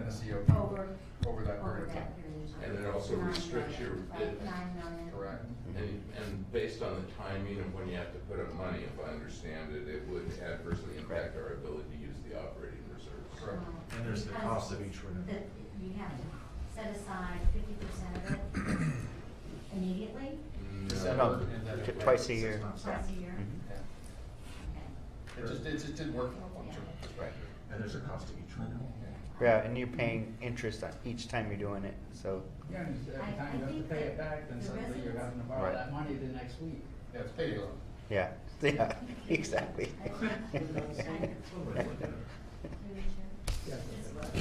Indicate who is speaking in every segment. Speaker 1: ratio
Speaker 2: Over,
Speaker 1: over that
Speaker 2: over
Speaker 1: period of time.
Speaker 2: that period of time.
Speaker 3: And it also
Speaker 2: Nine
Speaker 3: restricts
Speaker 2: million,
Speaker 3: your
Speaker 2: Right,
Speaker 3: bid.
Speaker 2: nine million.
Speaker 1: Correct.
Speaker 3: And, and based on the timing of when you have to put up money, if I understand it, it would adversely impact our ability to use the operating reserves.
Speaker 1: Correct.
Speaker 2: Um,
Speaker 4: And there's the
Speaker 2: because
Speaker 4: cost of each renewal.
Speaker 2: the- You have to set aside fifty percent of it immediately,
Speaker 3: No.
Speaker 5: About t- twice a year.
Speaker 2: twice a year.
Speaker 5: Mhm.
Speaker 6: Mm-hmm.
Speaker 2: Okay.
Speaker 1: It just, it just didn't work on one term.
Speaker 3: Right.
Speaker 4: And there's a cost to each renewal.
Speaker 5: Yeah, and you're paying interest on each time you're doing it, so,
Speaker 6: Yeah, and it's
Speaker 2: I-
Speaker 6: every time
Speaker 2: I
Speaker 6: you have to
Speaker 2: think
Speaker 6: pay
Speaker 2: that
Speaker 6: it back, then
Speaker 2: the
Speaker 6: suddenly you're
Speaker 2: residents-
Speaker 6: having to borrow
Speaker 5: Right.
Speaker 6: that money the next week.
Speaker 1: Yeah, it's paid off.
Speaker 5: yeah, yeah, exactly.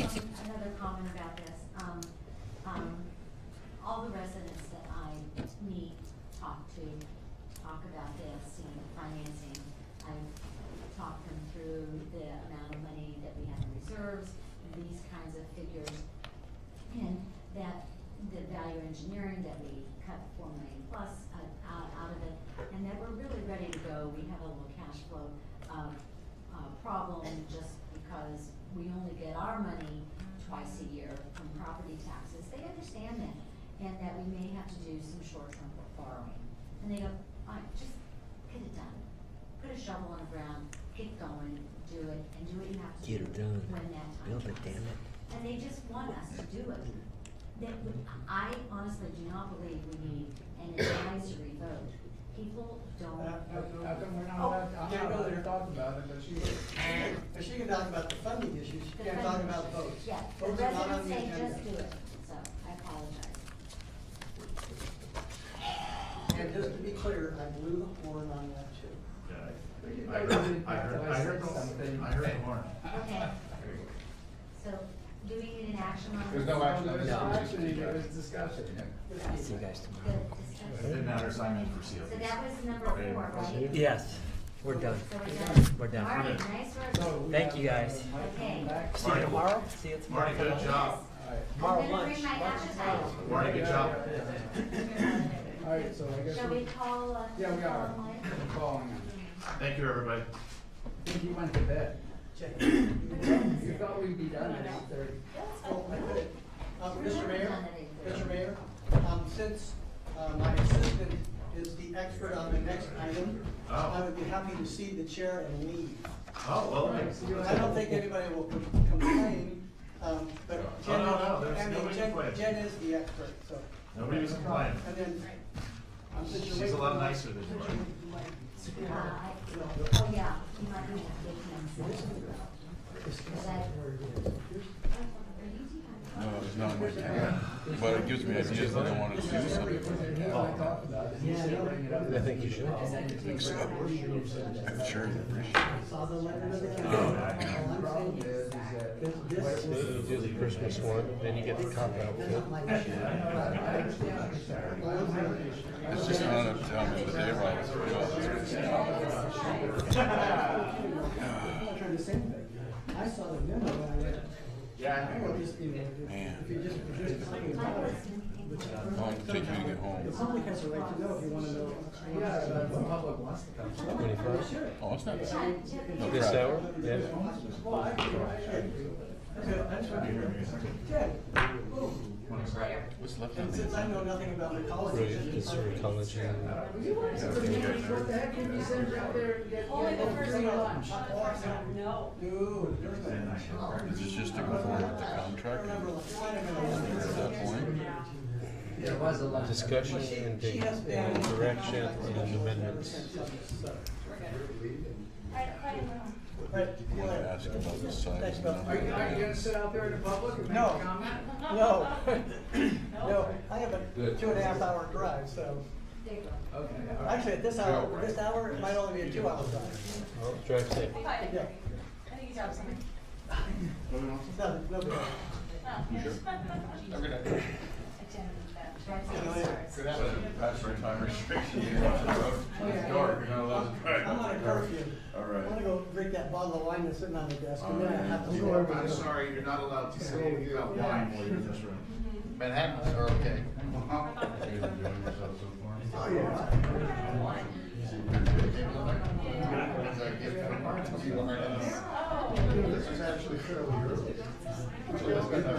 Speaker 2: Just um, another comment about this. Um, um, all the residents that I meet, talk to, talk about this, you know, financing. I talk them through the amount of money that we have in reserves, these kinds of figures. And that, the value engineering that we cut four million plus uh, out, out of it, and that we're really ready to go. We have a little cash flow, uh, uh, problem just because we only get our money twice a year from property taxes. They understand that, and that we may have to do some short-term borrowing. And they go, fine, just get it done. Put a shovel on the ground, get going, do it, and do what you have to do
Speaker 7: Get it done.
Speaker 2: when that time
Speaker 7: Build it,
Speaker 2: comes
Speaker 7: damn it.
Speaker 2: and they just want us to do it. That, w- I honestly do not believe we need an advisory vote. People
Speaker 6: How
Speaker 2: don't.
Speaker 8: Uh,
Speaker 6: how- how come we're not allowed, I'm not allowed to talk about it, but she is.
Speaker 8: If she can talk about the funding issues, she can't talk about votes.
Speaker 2: Yeah, the
Speaker 8: Votes are not on
Speaker 2: residents
Speaker 8: the
Speaker 2: say
Speaker 8: agenda.
Speaker 2: just do it, so I apologize.
Speaker 8: And just to be clear, I blew the horn on that too.
Speaker 4: Yeah,
Speaker 6: We didn't
Speaker 4: I I
Speaker 6: know
Speaker 4: heard,
Speaker 6: we didn't
Speaker 4: I
Speaker 6: have
Speaker 4: heard,
Speaker 6: to
Speaker 4: I heard,
Speaker 6: license
Speaker 4: the-
Speaker 6: something.
Speaker 4: I heard the horn.
Speaker 2: Okay,
Speaker 3: Anyway.
Speaker 2: so do we need an action on this?
Speaker 1: There's no action on
Speaker 6: There's
Speaker 1: this.
Speaker 6: no
Speaker 1: It's just-
Speaker 6: action, there was discussion.
Speaker 7: See you guys
Speaker 2: The
Speaker 7: tomorrow.
Speaker 4: It
Speaker 2: discussion.
Speaker 4: didn't matter, sign in for COs.
Speaker 2: So that was number four, right?
Speaker 7: Yes, we're done.
Speaker 2: So we're done.
Speaker 7: We're done.
Speaker 2: All right, nice
Speaker 6: So
Speaker 2: work.
Speaker 6: we
Speaker 7: Thank
Speaker 6: have,
Speaker 7: you, guys.
Speaker 6: uh, Mike coming
Speaker 2: Okay.
Speaker 6: back.
Speaker 7: See you tomorrow? See you tomorrow.
Speaker 4: Marty, good job.
Speaker 6: All right.
Speaker 2: I'm
Speaker 7: Tomorrow
Speaker 2: gonna bring
Speaker 7: lunch.
Speaker 2: my appetite.
Speaker 4: Marty, good job.
Speaker 6: All right, so I guess
Speaker 2: Shall we
Speaker 6: we're
Speaker 2: call, uh?
Speaker 6: Yeah, we are.
Speaker 2: call Mike?
Speaker 6: calling him.
Speaker 4: Thank you, everybody.
Speaker 6: I think he went to bed.
Speaker 8: Check.
Speaker 6: You thought we'd be done at eight thirty.
Speaker 8: Oh, I could. Uh, Mr. Mayor, Mr. Mayor, um, since, uh, my assistant is the expert on the next item,
Speaker 4: Oh.
Speaker 8: I would be happy to see the chair and leave.
Speaker 4: Oh, well, thanks.
Speaker 6: Right.
Speaker 8: I don't think anybody will com- complain, um, but
Speaker 4: Oh, No, no,
Speaker 8: Jen,
Speaker 4: no, there's
Speaker 8: I mean,
Speaker 4: nobody
Speaker 8: Jen,
Speaker 4: complaining.
Speaker 8: Jen is the expert, so.
Speaker 4: nobody was complaining.
Speaker 8: And then, um, since you're
Speaker 4: She's a
Speaker 8: waiting
Speaker 4: lot
Speaker 8: for my-
Speaker 4: nicer than you are.
Speaker 2: Uh, I- oh, yeah, you might need to give him some. Is that-
Speaker 9: No, it's not my intent, but it gives me ideas that I want to do something.
Speaker 6: He and I talked about it, and he said bring it up.
Speaker 7: I think you should.
Speaker 9: I'm sure you appreciate
Speaker 8: Saw the letter of the
Speaker 6: All
Speaker 8: county.
Speaker 6: I'm saying is, is that.
Speaker 8: This- this-
Speaker 6: You do the Christmas one, then you get the cop out.
Speaker 8: That's not my issue.
Speaker 9: it. It's just not up to how much of a day ride it's for
Speaker 8: I'm not trying to say anything. I saw the memo when I read it.
Speaker 6: Yeah.
Speaker 8: I would just, you know, if you just, if you just complain about it.
Speaker 9: How long does it take you to get
Speaker 8: The
Speaker 9: home?
Speaker 8: public has a right to know if you wanna know.
Speaker 6: Yeah, but the public wants to come.
Speaker 8: Twenty-first?
Speaker 9: Oh, it's not bad.
Speaker 2: Chad, do you have any-
Speaker 9: No crap.
Speaker 8: Well, I, I, okay, I just want to hear. Ted, oh,
Speaker 9: What's left
Speaker 8: and
Speaker 9: of me?
Speaker 8: since I know nothing about ecology. it's-
Speaker 6: You want some community, what the heck, can you send out there and get,
Speaker 8: Only
Speaker 6: get
Speaker 8: the first
Speaker 6: free
Speaker 8: one.
Speaker 6: lunch?
Speaker 8: No. Dude, there's no.
Speaker 9: Is this just to conform with the contract
Speaker 8: Remember,
Speaker 9: and
Speaker 8: like, wait a minute.
Speaker 9: at that point?
Speaker 6: There was a lunch.
Speaker 8: Well, she- she has been in contact with us ever since I was, so. But,
Speaker 9: I
Speaker 8: you
Speaker 9: wanted to
Speaker 8: know,
Speaker 9: ask about the size. and
Speaker 8: Are
Speaker 9: number
Speaker 6: Are you, are you
Speaker 9: of
Speaker 6: gonna sit out there in the public and make
Speaker 8: No.
Speaker 6: a comment?
Speaker 8: No, no, I have a two and a half hour drive, so,
Speaker 2: There you go.
Speaker 6: Okay, all right.
Speaker 8: actually, at this hour, this hour, it might only be a two hour drive.
Speaker 7: Drive safe.
Speaker 8: Yeah,
Speaker 10: think you dropped something.
Speaker 8: it's not, no problem.
Speaker 1: Have a good night. Good afternoon.
Speaker 9: that. That's your time restriction. You're not allowed-
Speaker 6: Oh,
Speaker 9: It's dark, you're not allowed to drive.
Speaker 8: I'm on a curfew.
Speaker 9: All
Speaker 8: I'm
Speaker 9: right.
Speaker 8: gonna go drink that bottle of wine that's sitting on the desk, and then I have to.
Speaker 6: You are-
Speaker 8: leave.
Speaker 3: sorry, you're not allowed to
Speaker 6: say about
Speaker 4: Wine while you're in this room.
Speaker 1: Manhattans are okay.
Speaker 4: You guys enjoying yourself so far?
Speaker 8: Oh, yeah.
Speaker 1: It's a gift from our-
Speaker 3: Oh.
Speaker 1: This is actually fairly early.